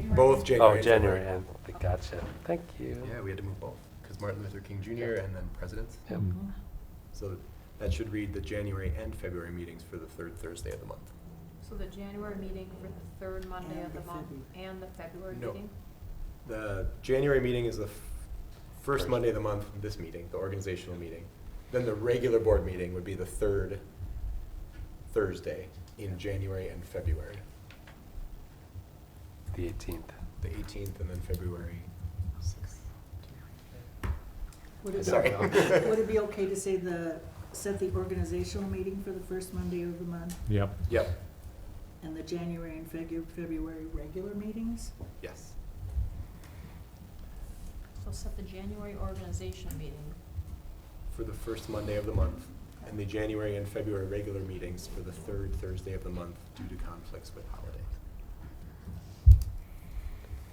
Both January. Oh, and January end, I gotcha, thank you. Yeah, we had to move both, because Martin Luther King Jr. and then presidents. Yep. So that should read the January and February meetings for the third Thursday of the month. So the January meeting for the third Monday of the month and the February No. meeting? The January meeting is the f- first First. Monday of the month, this meeting, the organizational meeting. Then the regular board meeting would be the third Thursday in January and February, The eighteenth. the 18th and then February 6th. Would it Sorry. be, would it be okay to say the, set the organizational meeting for the first Monday of the month Yep. Yep, and the January and February, February regular meetings? yes. So set the January organization meeting. for the first Monday of the month, and the January and February regular meetings for the third Thursday of the month due to conflicts with holidays.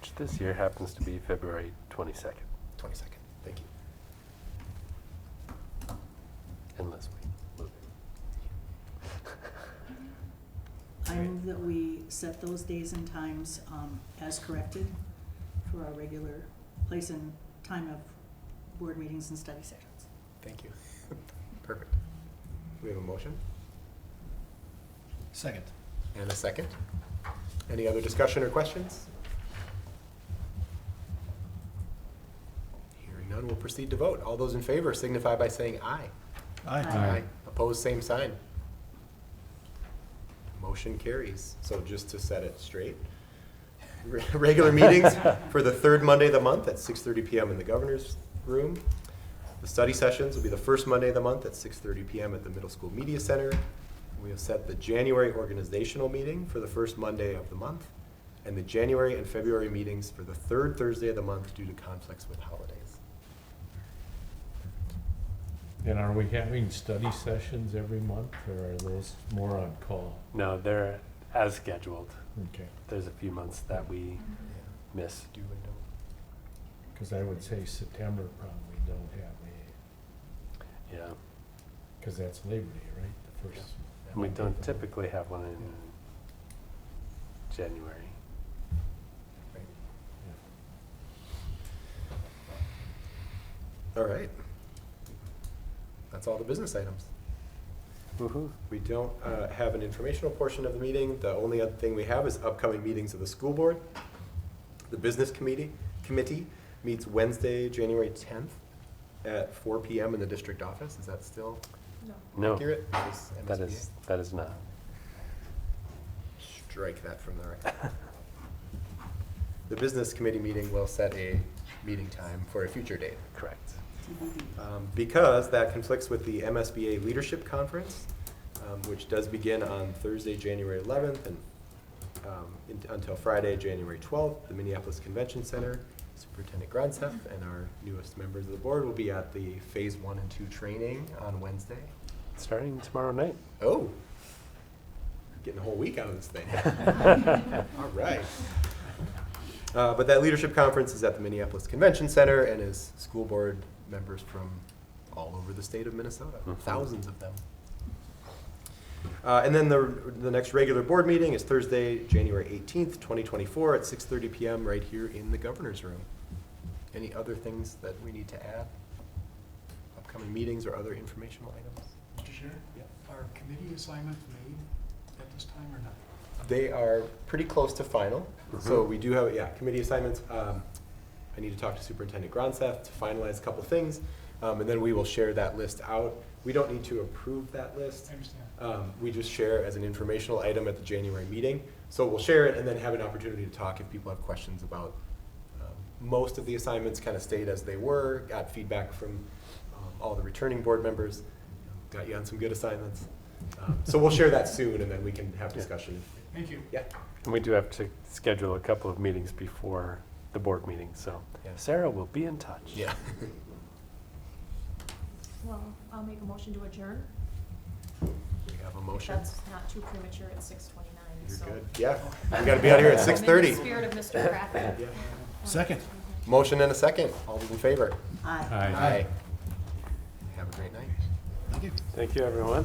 Which this year happens to be February 22nd, Twenty-second, thank you. unless we move I move that we set those days and times, um, as corrected for our regular place and time of board meetings and study sessions. Thank you. Perfect. We have a motion Second. and a second. Any other discussion or questions? Hearing none, we'll proceed to vote. All those in favor signify by saying aye. Aye. Opposed, same sign. Motion carries. So just to set it straight, re- regular meetings for the third Monday of the month at 6:30 PM in the governor's room. The study sessions will be the first Monday of the month at 6:30 PM at the Middle School Media Center. We have set the January organizational meeting for the first Monday of the month, and the January and February meetings for the third Thursday of the month due to conflicts with holidays. And are we having study sessions every month, or are those more on call? No, they're as scheduled. Okay, There's a few months that we Yeah, miss. Do and don't. because I would say September probably don't have a, Yeah, because that's Labor Day, right? The first. and we don't typically have one in January. All right. That's all the business items. Woo-hoo. We don't uh, have an informational portion of the meeting. The only other thing we have is upcoming meetings of the school board. The business committee, committee meets Wednesday, January 10th at 4 PM in the district office. Is that still No. No, accurate? Is that MSBA? is, that is not. Strike that from the record. The business committee meeting will set a meeting time for a future date. Correct. TBD. um, because that conflicts with the MSBA Leadership Conference, um, which does begin on Thursday, January 11th, and um, in- until Friday, January 12th, the Minneapolis Convention Center. Superintendent Gronseth and our newest members of the board will be at the Phase One and Two training on Wednesday. Starting tomorrow night. Oh, getting a whole week out of this thing. All right. Uh, But that leadership conference is at the Minneapolis Convention Center and is school board members from all over the state of Minnesota, Mhm. thousands of them. Uh, And then the, the next regular board meeting is Thursday, January 18th, 2024, at 6:30 PM right here in the governor's room. Any other things that we need to add? Upcoming meetings or other informational items? Mr. Chair, Yep. are committee assignments made at this time or not? They are pretty close to final, so we do have, yeah, committee assignments. Um, I need to talk to Superintendent Gronseth to finalize a couple things, um, and then we will share that list out. We don't need to approve that list. I understand. Um, we just share as an informational item at the January meeting. So we'll share it and then have an opportunity to talk if people have questions about. um, Most of the assignments kind of stayed as they were, got feedback from um, all the returning board members, got you on some good assignments. Um, So we'll share that soon and then we can have discussion. Thank you. Yeah. And we do have to schedule a couple of meetings before the board meeting, so Yeah. Sarah will be in touch. Yeah. Well, I'll make a motion to adjourn. We have a motion. That's not too premature at six twenty-nine, You're so. good. Yeah, we gotta be out here I'm in at the six thirty. Spirit of Mr. Crafty. Second. Motion and a second. All those in favor? Aye. Aye. Have a great night. Thank you. Thank you, everyone.